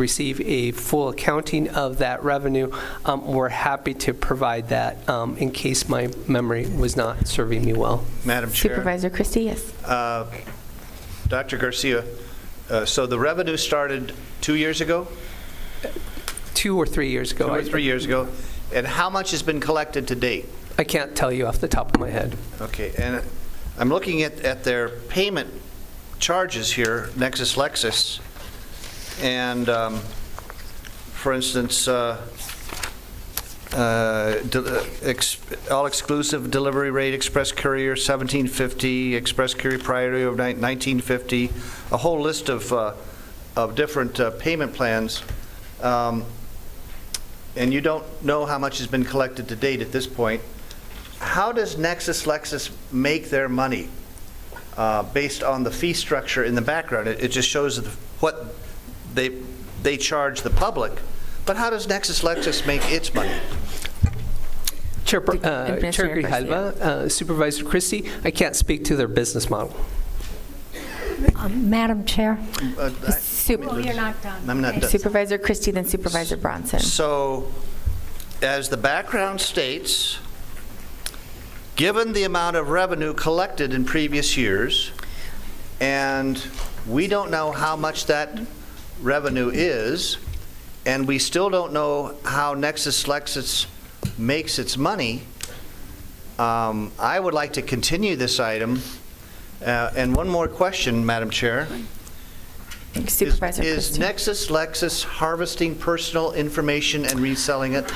receive a full accounting of that revenue, um, we're happy to provide that um, in case my memory was not serving me well. Madam Chair. Supervisor Christie, yes. uh, Dr. Garcia, uh, so the revenue started two years ago? Two or three years ago. Two I- or three years ago? And how much has been collected to date? I can't tell you off the top of my head. Okay, and I'm looking at, at their payment charges here, Nexus Lexus, and, um, for instance, uh, uh, del- ex- all-exclusive delivery rate, express courier, 1750, express courier priority of nine- 1950, a whole list of, uh, of different uh, payment plans. Um, And you don't know how much has been collected to date at this point. How does Nexus Lexus make their money uh, based on the fee structure in the background? It it just shows the- what they, they charge the public, but how does Nexus Lexus make its money? Chair Per- uh, Chair Administrator Garcia. Grijalva, uh, Supervisor Christie, I can't speak to their business model. Um, Madam Chair, Uh, I- Sup- let me- you're not done. I'm not done. Supervisor Christie, then Supervisor Bronson. So, as the background states, given the amount of revenue collected in previous years, and we don't know how much that revenue is, and we still don't know how Nexus Lexus makes its money, um, I would like to continue this item. Uh, And one more question, Madam Chair. Is- Supervisor Is Christie. Nexus Lexus harvesting personal information and reselling it?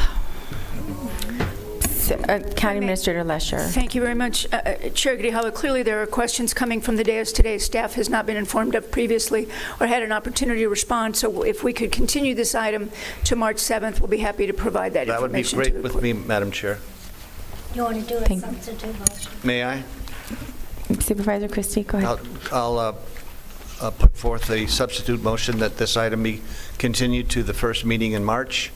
S- uh, County Administrator Lesher. Thank you very much. Uh, uh, Chair Grijalva, clearly there are questions coming from the dais today staff has not been informed of previously or had an opportunity to respond, so if we could continue this item to March 7th, we'll be happy to provide that That would be information to great the with court. me, Madam Chair. You want to do a Thank- substitute motion? May I? Supervisor Christie, go ahead. I'll- I'll uh, uh, put forth a substitute motion that this item be continued to the first meeting in March.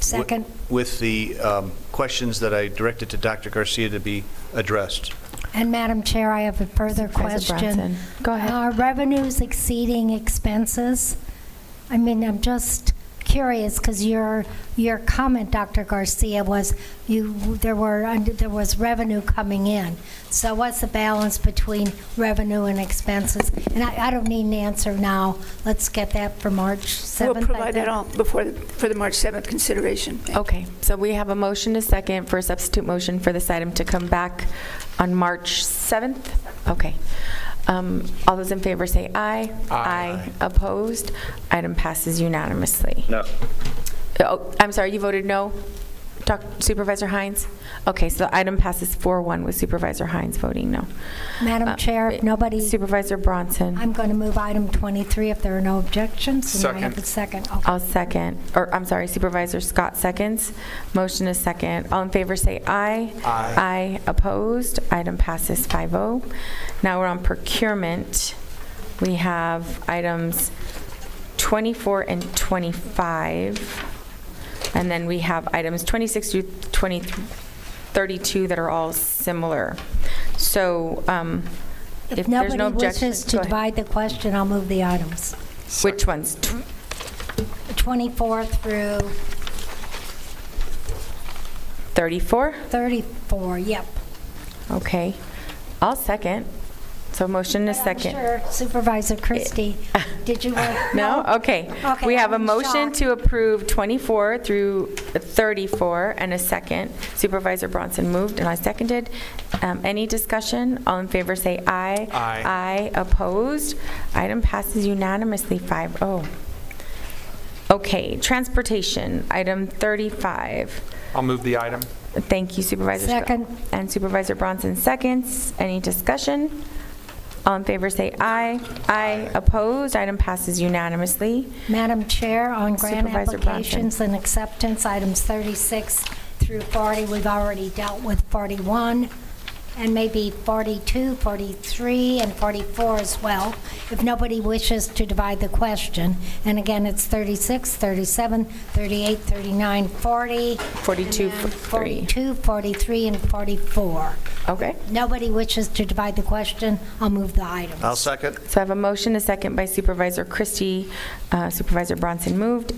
wi- Second. With the um, questions that I directed to Dr. Garcia to be addressed. And Madam Chair, I have a further Supervisor question. Bronson. Go ahead. Are revenues exceeding expenses? I mean, I'm just curious, because your, your comment, Dr. Garcia, was you, there were, under- there was revenue coming in. So what's the balance between revenue and expenses? And I, I don't need an answer now. Let's get that for March 7th. We'll I provide think. that all before, the- for the March 7th consideration. Thank you. Okay, so we have a motion, a second, for a substitute motion for this item to come back on March 7th? Okay. Um, All those in favor say aye. Aye. Opposed? Item passes unanimously. No. Oh, I'm sorry, you voted no? Doc- Supervisor Hines? Okay, so the item passes 4-1 with Supervisor Hines voting no. Madam Uh, Chair, if nobody- Supervisor Bronson? I'm going to move item 23 if there are no objections. And I have a second. Okay. I'll second, or I'm sorry, Supervisor Scott seconds. Motion is second. All in favor say aye. Aye. Aye. Opposed? Item passes 5-0. Now we're on procurement. We have items 24 and 25. And then we have items 26 through 20 32 that are all similar. So um, if there's no Nobody objections, wishes to go ahead. divide the question, I'll move the items. Which ones? Tw- 24 through 34? 34, yep. Okay. I'll second. So motion is I'm second. Eh. sure Supervisor Christie, did you want? No? Okay. We have a I'm motion shocked. to approve 24 through 34 and a second. Supervisor Bronson moved and I seconded. Um, Any discussion? All in favor say aye. Aye. Aye. Opposed? Item passes unanimously, 5-0. Okay, transportation, item 35. I'll move the item. Thank you Supervisor Scott. Second. And Supervisor Bronson seconds. Any discussion? All in favor say aye. Aye. Opposed? Item passes unanimously. Madam Chair, on grant Supervisor Bronson. applications and acceptance, items 36 through 40, we've already dealt with 41. and maybe 42, 43, and 44 as well, if nobody wishes to divide the question. And again, it's 36, 37, 38, 39, 40. 42, and then 43. 42, 43, and 44. Okay. Nobody wishes to divide the question, I'll move the items. I'll second. So I have a motion, a second by Supervisor Christie. Uh, Supervisor Bronson moved.